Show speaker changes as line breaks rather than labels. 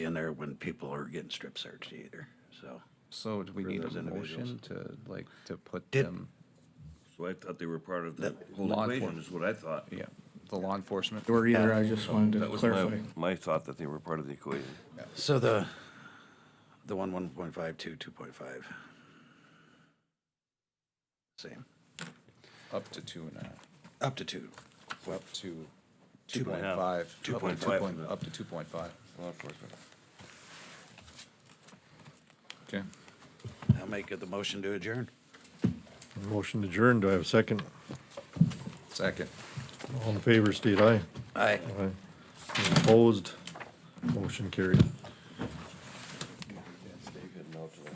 in there when people are getting strip searched either, so.
So do we
For
need
those
a motion
individuals.
to like, to put
Did-
them,
So I thought they were part of the
That-
whole
Law
equation,
enforcement.
is what I thought.
yeah, the law enforcement?
Or either, I just wanted to
That was my,
clarify.
my thought that they were part of the equation.
So the, the one, one point five, two, two point five. Same,
Up to two and a half,
up to two. Well,
up to
Two and
two point
a half.
five.
Two point
five.
Up to two point five,
Law enforcement.
okay.
I'll make it the motion to adjourn.
Motion adjourned. Do I have a second?
Second.
All in favor, state aye.
Aye.
Aye. Opposed? Motion carried.